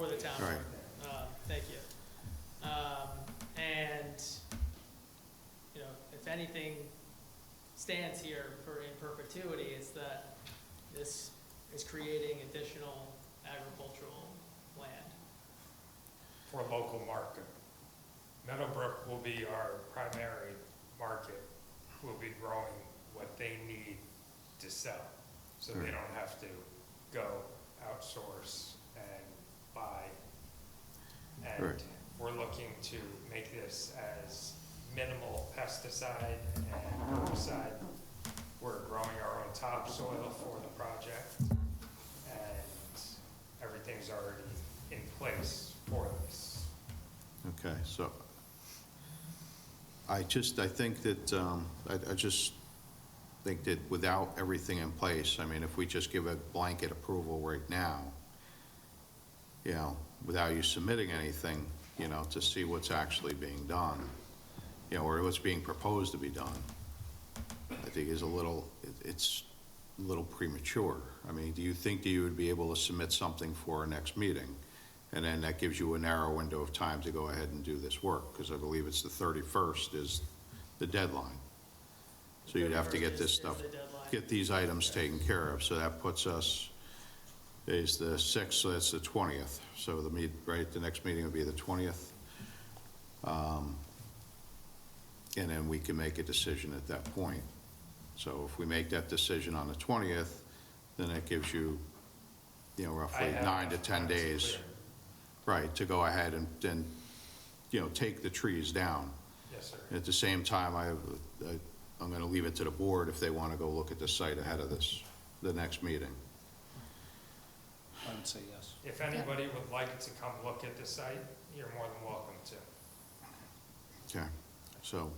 Um, anything stands here for in perpetuity is that this is creating additional agricultural land. for local market. Meadowbrook will be our primary market, will be growing what they need to sell. So they don't have to go outsource and buy. And Right. we're looking to make this as minimal pesticide and herbicide. We're growing our own topsoil for the project and everything's already in place for this. Okay, so I just, I think that, um, I I just think that without everything in place, I mean, if we just give a blanket approval right now, you know, without you submitting anything, you know, to see what's actually being done, you know, or what's being proposed to be done, I think is a little, it- it's a little premature. I mean, do you think that you would be able to submit something for our next meeting? And then that gives you a narrow window of time to go ahead and do this work, because I believe it's the 31st is the deadline. So you'd have to get this Is- is stuff, the deadline. get these items taken care of, so that puts us, is the 6th, so that's the 20th. So the meet, right, the next meeting would be the 20th. Um, And then we can make a decision at that point. So if we make that decision on the 20th, then that gives you, you know, I roughly have nine to enough 10 time to days. clear. Right, to go ahead and, and, you know, take the trees down. Yes, sir. At the same time, I, I- I'm going to leave it to the board if they want to go look at the site ahead of this, the next meeting. I would say yes. If anybody would like to come look at the site, you're more than welcome to. Okay, so,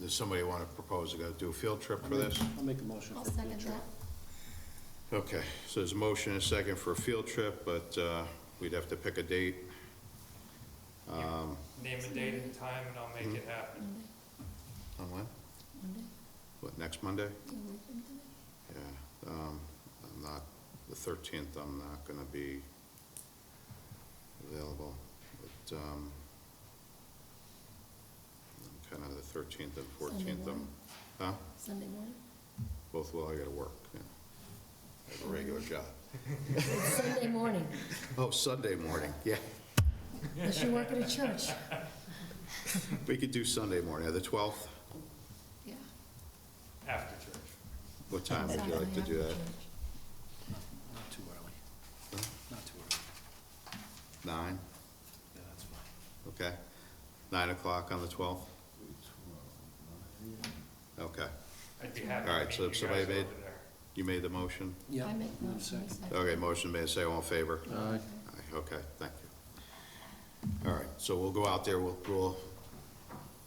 does somebody want to propose to go do a field trip for this? I'll make a motion I'll for a field second trip. that. Okay, so there's a motion and a second for a field trip, but uh, we'd have to pick a date. Name a date and time, and I'll make it happen. On when? Monday? What, next Monday? You working today? Yeah, um, I'm not, the thirteenth, I'm not gonna be available, but, um, kind of the thirteenth and Sunday fourteenth, I'm, morning? huh? Sunday morning? Both will, I gotta work, yeah. I have a regular job. Sunday morning, Oh, Sunday morning, yeah. unless you work at a church. We could do Sunday morning, the twelfth, Yeah. After church. what time would you like to do that? Not too early. Not too early. Nine, Yeah, that's fine. okay? Nine o'clock on the twelfth? Okay, I'd be happy All to right, meet so you if guys somebody over there. made- you made the motion? Yeah. I make move motion, I second. second. Okay, motion made, say all in favor? Aye. Aye, Okay, thank you. All right, so we'll go out there, we'll, we'll,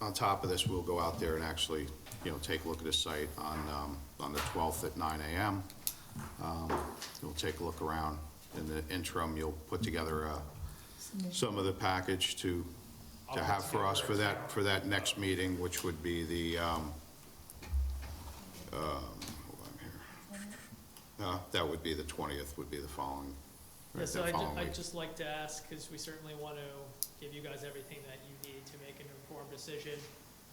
on top of this, we'll go out there and actually, you know, take a look at the site on, um, on the twelfth at nine AM. Um, We'll take a look around. In the interim, you'll put together, uh, Submission. some of the package to, I'll to put have for us for together a that, for that next meeting, which would be the, um, um, hold on here. Uh, that would be the twentieth, would be the following, Yeah, right, so the I'd, ju- following I'd week. just like to ask, because we certainly want to give you guys everything that you need to make an informed decision.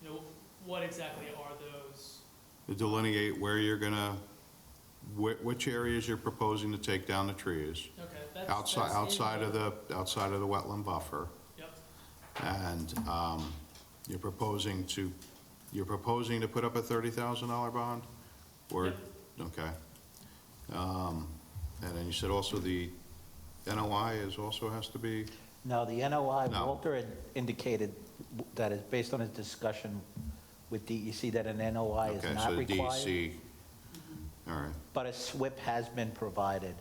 You know, what exactly are those, Delineate where you're gonna, whi- which areas you're proposing to take down the trees, okay, that's. outside, that's outside of the, outside of the wetland buffer. Yep, And, um, you're proposing to, you're proposing to put up a thirty thousand dollar bond? Or, Yep. okay. Um, and then you said also the NOI is, also has to be, No, the NOI, No. Walter had indicated that is based on his discussion with DEC that an NOI okay, is so E not the required, DEC. All right, but a SWIP has been provided.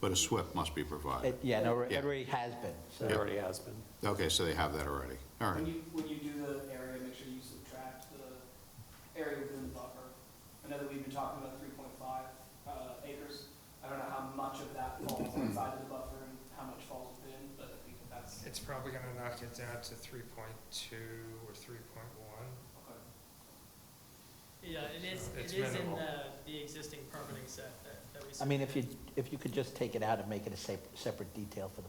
but a SWIP must be provided. It- Yeah, no, Yeah. it already has been. so- Yeah. already has been. Okay, so they have that already, all right. When you, when you do the area, make sure you subtract the area within the buffer. I know that we've been talking about three point five uh, acres. I don't know how much of that falls outside of the buffer and how much falls within, but I think that that's, It's probably gonna knock it down to three point two or three point one. okay. yeah, it is, So it it's is in minimal. the, the existing permitting set that, that we. I mean, submitted. if you, if you could just take it out and make it a sep- separate detail for the